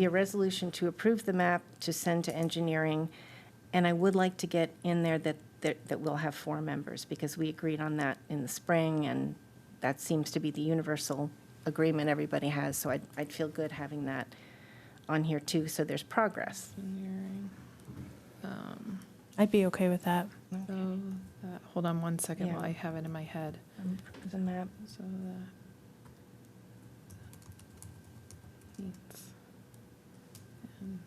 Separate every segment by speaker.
Speaker 1: be a resolution to approve the map to send to engineering, and I would like to get in there that, that that we'll have four members, because we agreed on that in the spring, and that seems to be the universal agreement everybody has, so I'd, I'd feel good having that on here too, so there's progress.
Speaker 2: I'd be okay with that.
Speaker 1: The
Speaker 3: Um, So that, hold on one second
Speaker 1: Yeah.
Speaker 3: while I have it in my head.
Speaker 1: map,
Speaker 3: So that meets and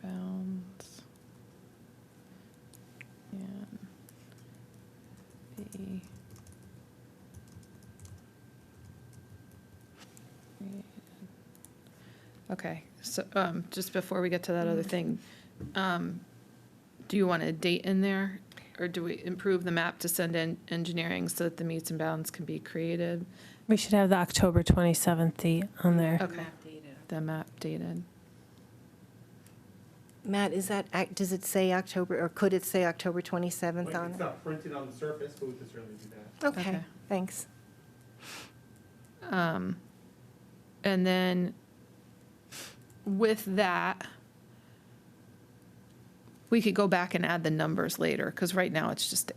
Speaker 3: bounds and the Okay, so um, just before we get to that other thing, um, do you want a date in there? Or do we improve the map to send in engineering so that the meets and bounds can be created?
Speaker 2: We should have the October 27th date on there.
Speaker 3: Okay, the map dated.
Speaker 1: Matt, is that, ac- does it say October, or could it say October 27th
Speaker 4: Like,
Speaker 1: on
Speaker 4: It's
Speaker 1: it?
Speaker 4: not printed on the surface, but we could certainly do that.
Speaker 1: Okay,
Speaker 3: Okay.
Speaker 1: thanks.
Speaker 3: Um, And then with that, we could go back and add the numbers later, because right now it's just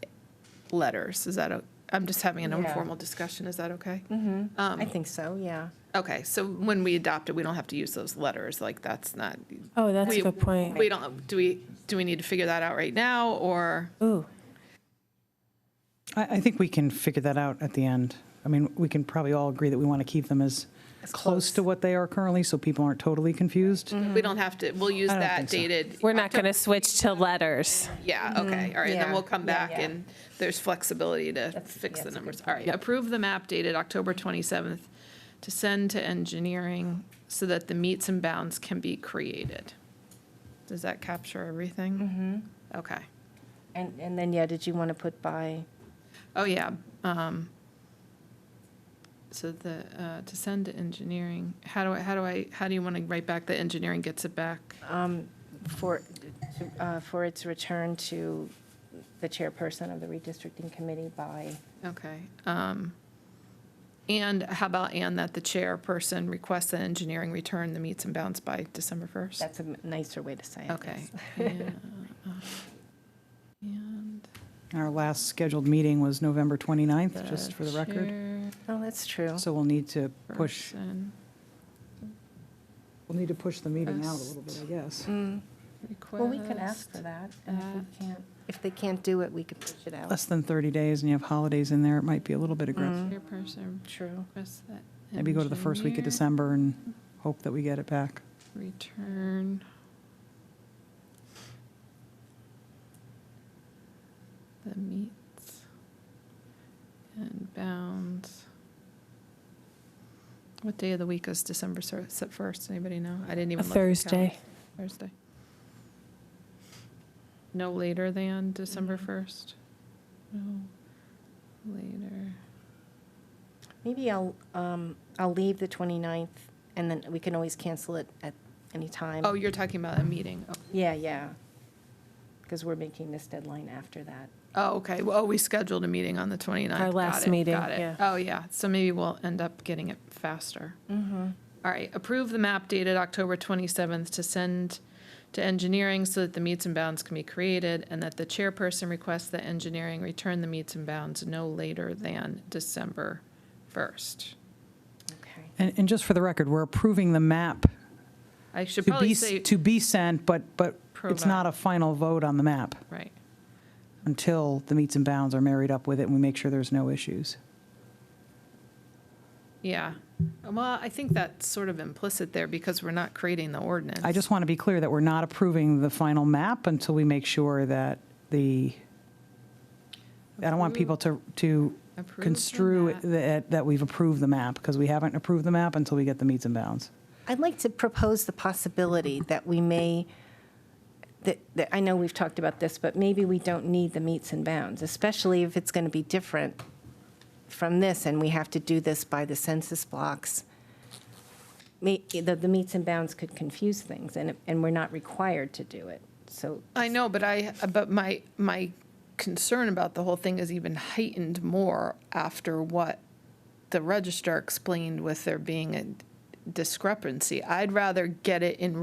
Speaker 3: letters. Is that, o- I'm just having an
Speaker 1: Yeah.
Speaker 3: informal discussion, is that okay?
Speaker 1: hmm I
Speaker 3: Um,
Speaker 1: think so, yeah.
Speaker 3: Okay, so when we adopt it, we don't have to use those letters, like, that's not,
Speaker 2: Oh, that's
Speaker 3: We-
Speaker 2: a good point.
Speaker 3: we don't, do we, do we need to figure that out right now, or?
Speaker 2: Ooh,
Speaker 5: I, I think we can figure that out at the end. I mean, we can probably all agree that we want to keep them as
Speaker 1: As
Speaker 5: close to what they are currently, so people aren't totally confused.
Speaker 3: We don't have to, we'll use
Speaker 5: I don't
Speaker 3: that
Speaker 5: think so.
Speaker 3: dated.
Speaker 2: we're not going to switch to letters.
Speaker 3: Yeah, okay, all right, and then
Speaker 1: yeah,
Speaker 3: we'll come
Speaker 1: yeah,
Speaker 3: back
Speaker 1: yeah.
Speaker 3: and there's flexibility to
Speaker 1: That's-
Speaker 3: fix
Speaker 1: yeah, that's a
Speaker 3: the
Speaker 1: good
Speaker 3: numbers. All
Speaker 1: point.
Speaker 3: right, approve the map dated October 27th to send to engineering so that the meets and bounds can be created. Does that capture everything? Mm-hmm. Okay.
Speaker 1: And, and then, yeah, did you want to put by?
Speaker 3: Oh, yeah. um, So the, uh, to send to engineering, how do I, how do I, how do you want to write back that engineering gets it back?
Speaker 1: um, For, uh, for its return to the chairperson of the redistricting committee by,
Speaker 3: Okay. um, And how about, and that the chairperson requests that engineering return the meets and bounds by December 1st?
Speaker 1: that's a nicer way to say it.
Speaker 3: Okay.
Speaker 1: yes.
Speaker 3: yeah, uh, And. uh,
Speaker 5: Our last scheduled meeting was November 29th, just
Speaker 3: the
Speaker 5: for the record.
Speaker 1: Oh, that's true.
Speaker 5: So we'll need to push,
Speaker 3: chairperson
Speaker 5: we'll need to push the meeting out a little bit, I guess.
Speaker 1: Mm.
Speaker 3: Request.
Speaker 1: Well, we could ask for that, and if we can't, if they can't do it, we could push it out.
Speaker 5: Less than 30 days and you have holidays in there, it might be a little bit aggressive.
Speaker 1: Mm.
Speaker 3: Chairperson
Speaker 1: True.
Speaker 3: requests that.
Speaker 5: Maybe go to the first week of
Speaker 3: Mm-hmm. engineer
Speaker 5: December and hope that we get it back.
Speaker 3: Return. The meets and bounds. What day of the week is December sir- se- 1st? Anybody know? I didn't
Speaker 2: A
Speaker 3: even look. at the
Speaker 2: Thursday.
Speaker 3: calendar. Thursday. No later than December
Speaker 2: Mm-hmm.
Speaker 3: 1st? No later.
Speaker 1: Maybe I'll, um, I'll leave the 29th, and then we can always cancel it at any time.
Speaker 3: Oh, you're talking about a meeting. Oh,
Speaker 1: Yeah, yeah. Because we're making this deadline after that.
Speaker 3: Oh, okay. Well, we scheduled a meeting on the 29th.
Speaker 2: Our
Speaker 3: Got
Speaker 2: last
Speaker 3: it,
Speaker 2: meeting,
Speaker 3: got it.
Speaker 2: yeah.
Speaker 3: Oh, yeah. So maybe we'll end up getting it faster.
Speaker 1: Mm-hmm.
Speaker 3: All right. Approve the map dated October 27th to send to engineering so that the meets and bounds can be created and that the chairperson requests that engineering return the meets and bounds no later than December 1st.
Speaker 1: Okay.
Speaker 5: And, and just for the record, we're approving the map
Speaker 3: I should
Speaker 5: to be,
Speaker 3: probably
Speaker 5: s-
Speaker 3: say,
Speaker 5: to be sent, but, but it's
Speaker 3: Provide.
Speaker 5: not a final vote on the map.
Speaker 3: right.
Speaker 5: until the meets and bounds are married up with it and we make sure there's no issues.
Speaker 3: Yeah. Well, I think that's sort of implicit there because we're not creating the ordinance.
Speaker 5: I just want to be clear that we're not approving the final map until we make sure that the, I don't want people to, to
Speaker 3: Approve the
Speaker 5: construe
Speaker 3: map.
Speaker 5: that, that we've approved the map, because we haven't approved the map until we get the meets and bounds.
Speaker 1: I'd like to propose the possibility that we may, that, that, I know we've talked about this, but maybe we don't need the meets and bounds, especially if it's going to be different from this, and we have to do this by the census blocks. May- The, the meets and bounds could confuse things, and, it- and we're not required to do it, so.
Speaker 3: I know, but I, but my, my concern about the whole thing is even heightened more after what the registrar explained with there being a discrepancy. I'd rather get it in